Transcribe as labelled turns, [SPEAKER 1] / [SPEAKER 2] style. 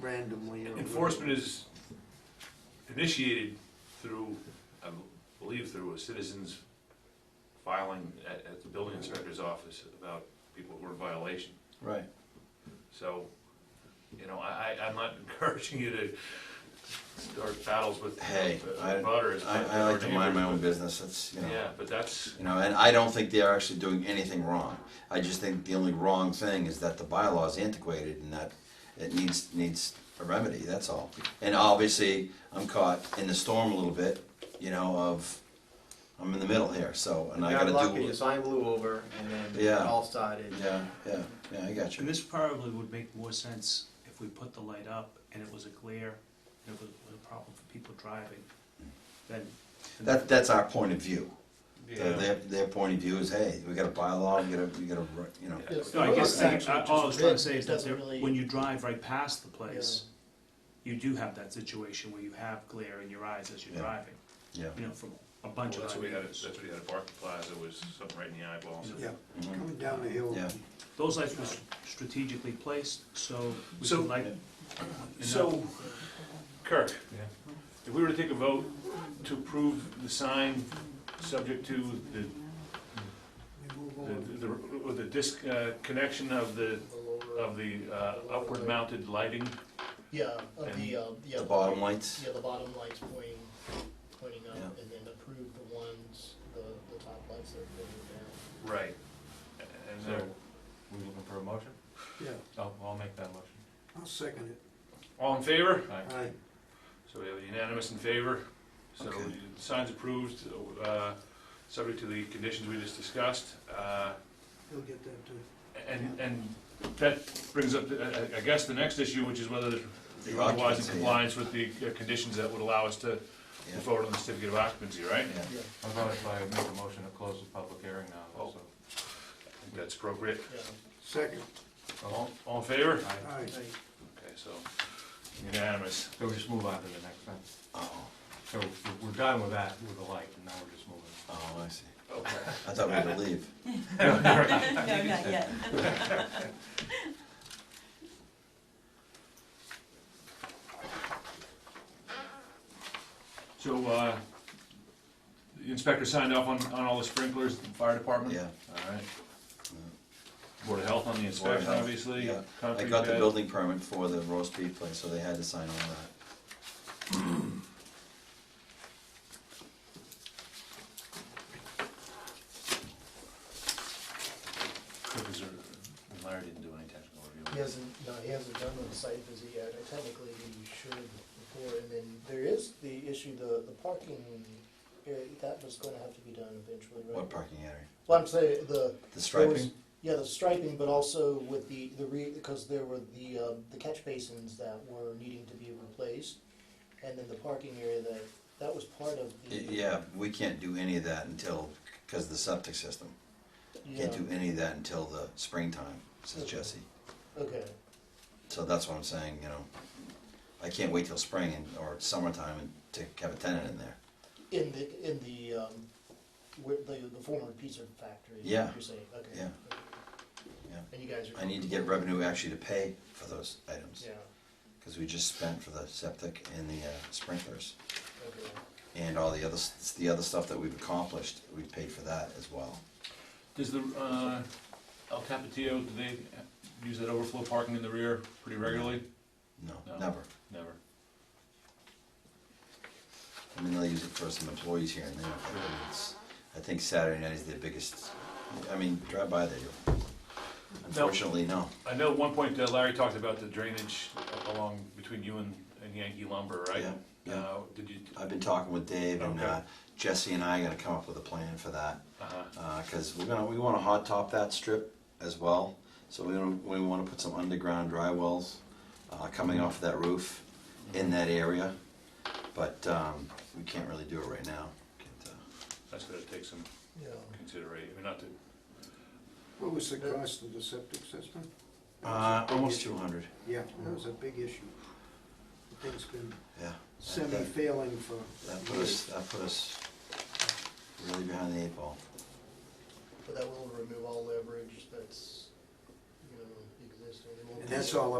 [SPEAKER 1] randomly. or
[SPEAKER 2] Enforcement is initiated through, I believe through a citizen's filing at, at the building inspector's office about people who are in violation.
[SPEAKER 3] Right.
[SPEAKER 2] So, you know, I, I, I'm not encouraging you to start battles with
[SPEAKER 3] Hey, I,
[SPEAKER 2] butters.
[SPEAKER 3] I, I like to mind my own business, it's, you know.
[SPEAKER 2] Yeah, but that's,
[SPEAKER 3] You know, and I don't think they're actually doing anything wrong. I just think the only wrong thing is that the bylaw is antiquated and that it needs, needs a remedy, that's all. And obviously, I'm caught in the storm a little bit, you know, of, I'm in the middle here, so, and I
[SPEAKER 4] got
[SPEAKER 3] gotta
[SPEAKER 4] lucky,
[SPEAKER 3] do.
[SPEAKER 4] the sign blew over and then it
[SPEAKER 3] Yeah.
[SPEAKER 4] all started.
[SPEAKER 3] Yeah, yeah, yeah, I got
[SPEAKER 5] And
[SPEAKER 3] you.
[SPEAKER 5] this probably would make more sense if we put the light up and it was a glare, and it was a problem for people driving, then.
[SPEAKER 3] That, that's our point of view. Their,
[SPEAKER 2] yeah,
[SPEAKER 3] their, their point of view is, hey, we got a bylaw, we gotta, we gotta, you know.
[SPEAKER 2] Yeah.
[SPEAKER 5] No, I guess,
[SPEAKER 1] Well, it's
[SPEAKER 5] I- I- all I was trying to say is that
[SPEAKER 1] actually
[SPEAKER 5] there,
[SPEAKER 1] just red. It doesn't really-
[SPEAKER 5] when you drive right past the place, you do have that situation where you have glare in your eyes as you're
[SPEAKER 3] Yeah.
[SPEAKER 5] driving,
[SPEAKER 3] Yeah.
[SPEAKER 5] you know, from a
[SPEAKER 2] well,
[SPEAKER 5] bunch of.
[SPEAKER 2] that's what we had, at-
[SPEAKER 5] eyewitnesses.
[SPEAKER 2] that's what we had at Barton Plaza, was something right in the eyeballs.
[SPEAKER 1] Yeah,
[SPEAKER 3] Mhm.
[SPEAKER 1] coming down the hill.
[SPEAKER 3] Yeah.
[SPEAKER 5] Those lights were strategically placed, so we
[SPEAKER 2] So-
[SPEAKER 5] could light.
[SPEAKER 2] So, Kirk, if we were to take a vote to approve the sign, subject to the,
[SPEAKER 1] We move on.
[SPEAKER 2] the, the- with the disconnection of the, of the uh, upward mounted lighting,
[SPEAKER 6] Yeah, of the, uh, yeah.
[SPEAKER 3] The bottom lights.
[SPEAKER 6] Yeah, the bottom lights pointing, pointing up,
[SPEAKER 3] Yeah.
[SPEAKER 6] and then approve the ones, the, the top lights that are pointing
[SPEAKER 2] right?
[SPEAKER 7] So,
[SPEAKER 2] And, uh,
[SPEAKER 7] we looking for a motion?
[SPEAKER 1] Yeah,
[SPEAKER 7] I'll, I'll make that motion.
[SPEAKER 1] I'll second it.
[SPEAKER 2] all in favor?
[SPEAKER 1] All right,
[SPEAKER 2] So we have unanimous in favor, so
[SPEAKER 3] Okay.
[SPEAKER 2] the sign's approved, uh, subject to the conditions we just discussed. Uh,
[SPEAKER 1] he'll get that too.
[SPEAKER 2] And, and that brings up, uh, I- I- I guess, the next issue, which is whether
[SPEAKER 3] The
[SPEAKER 2] you're otherwise in
[SPEAKER 3] occupancy, yeah.
[SPEAKER 2] compliance with the uh, conditions that would allow us to
[SPEAKER 3] Yeah.
[SPEAKER 2] vote on the certificate of occupancy, right?
[SPEAKER 3] Yeah.
[SPEAKER 6] down.
[SPEAKER 7] How about if I make a motion to close the public hearing now, also?
[SPEAKER 2] I think That's appropriate.
[SPEAKER 6] Yeah, yeah.
[SPEAKER 1] Second,
[SPEAKER 2] All all in favor?
[SPEAKER 7] Aye.
[SPEAKER 1] all right.
[SPEAKER 2] Okay, so unanimous.
[SPEAKER 7] So we just move on to the next one.
[SPEAKER 3] Oh,
[SPEAKER 7] So we're- we're done with that, with the light, and now we're just moving.
[SPEAKER 3] oh, I see.
[SPEAKER 2] Okay.
[SPEAKER 3] I thought we had to leave.
[SPEAKER 8] No, not yet.
[SPEAKER 2] So, uh, the inspector signed off on, on all the sprinklers, the fire department?
[SPEAKER 3] Yeah.
[SPEAKER 2] All right. Board of Health on the
[SPEAKER 3] Board of
[SPEAKER 2] inspection,
[SPEAKER 3] Health,
[SPEAKER 2] obviously.
[SPEAKER 3] yeah. I
[SPEAKER 2] concrete
[SPEAKER 3] got the
[SPEAKER 2] pad.
[SPEAKER 3] building permit for the roast beef place, so they had to sign all that.
[SPEAKER 2] Cook is a- Larry didn't do any technical
[SPEAKER 6] He
[SPEAKER 2] review.
[SPEAKER 6] hasn't, no, he hasn't done the site visit yet, and technically he should before, and then there is the issue, the, the parking, area, that was gonna have to be done eventually, right?
[SPEAKER 3] What parking area?
[SPEAKER 6] Well, I'm saying, the,
[SPEAKER 3] The
[SPEAKER 6] There was-
[SPEAKER 3] striping?
[SPEAKER 6] Yeah, the striping, but also with the, the re, because there were the, um, the catch basins that were needing to be replaced, and then the parking area that, that was part of the.
[SPEAKER 3] Y- Yeah, we can't do any of that until, because of the septic system.
[SPEAKER 6] Yeah,
[SPEAKER 3] Can't do any of that until the springtime, says Jesse.
[SPEAKER 6] Okay,
[SPEAKER 3] So that's what I'm saying, you know. I can't wait till spring and- or summertime and to have a tenant in there.
[SPEAKER 6] in the, in the, um, where, the, the former pizza factory, is
[SPEAKER 3] Yeah.
[SPEAKER 6] what you're saying, okay.
[SPEAKER 3] Yeah. Yeah.
[SPEAKER 6] And you guys are.
[SPEAKER 3] I need to get revenue actually to pay for those items.
[SPEAKER 6] Yeah,
[SPEAKER 3] Because we just spent for the septic and the uh, sprinklers.
[SPEAKER 6] okay,
[SPEAKER 3] And all the other, s- the other stuff that we've accomplished, we paid for that as well.
[SPEAKER 2] Does the, uh, El Capitio, do they use that overflow parking in the rear pretty regularly?
[SPEAKER 3] No,
[SPEAKER 2] No.
[SPEAKER 3] never.
[SPEAKER 2] Never.
[SPEAKER 3] I mean, they'll use it for some employees here and there. but it's- I think Saturday night is their biggest, I mean, drive by there. you'll- Unfortunately, no.
[SPEAKER 2] I know at one point uh, Larry talked about the drainage along between you and and Yankee lumber, right?
[SPEAKER 3] Yeah, yeah.
[SPEAKER 2] Uh, Did you,
[SPEAKER 3] I've been talking with Dave and
[SPEAKER 2] Okay.
[SPEAKER 3] uh, Jesse and I are gonna come up with a plan for that.
[SPEAKER 2] uh-huh,
[SPEAKER 3] because Uh, we're gonna we want to hot top that strip as well. So we wanna- we want to put some underground dry wells uh, coming off that roof in that area, but um, we can't really do it right now. Can't, uh,
[SPEAKER 2] that's gonna take some
[SPEAKER 6] yeah.
[SPEAKER 2] consideration, I mean, not to,
[SPEAKER 1] What was the cost of the septic system?
[SPEAKER 3] Uh, almost 200.
[SPEAKER 1] Yeah, that was a big issue. The thing's been
[SPEAKER 3] Yeah,
[SPEAKER 1] semi-failing for
[SPEAKER 3] that put us
[SPEAKER 1] years.
[SPEAKER 3] that put us really behind the eight ball.
[SPEAKER 6] But that will remove all leverage that's, you know, existing. It won't
[SPEAKER 1] And
[SPEAKER 6] be-
[SPEAKER 1] that's all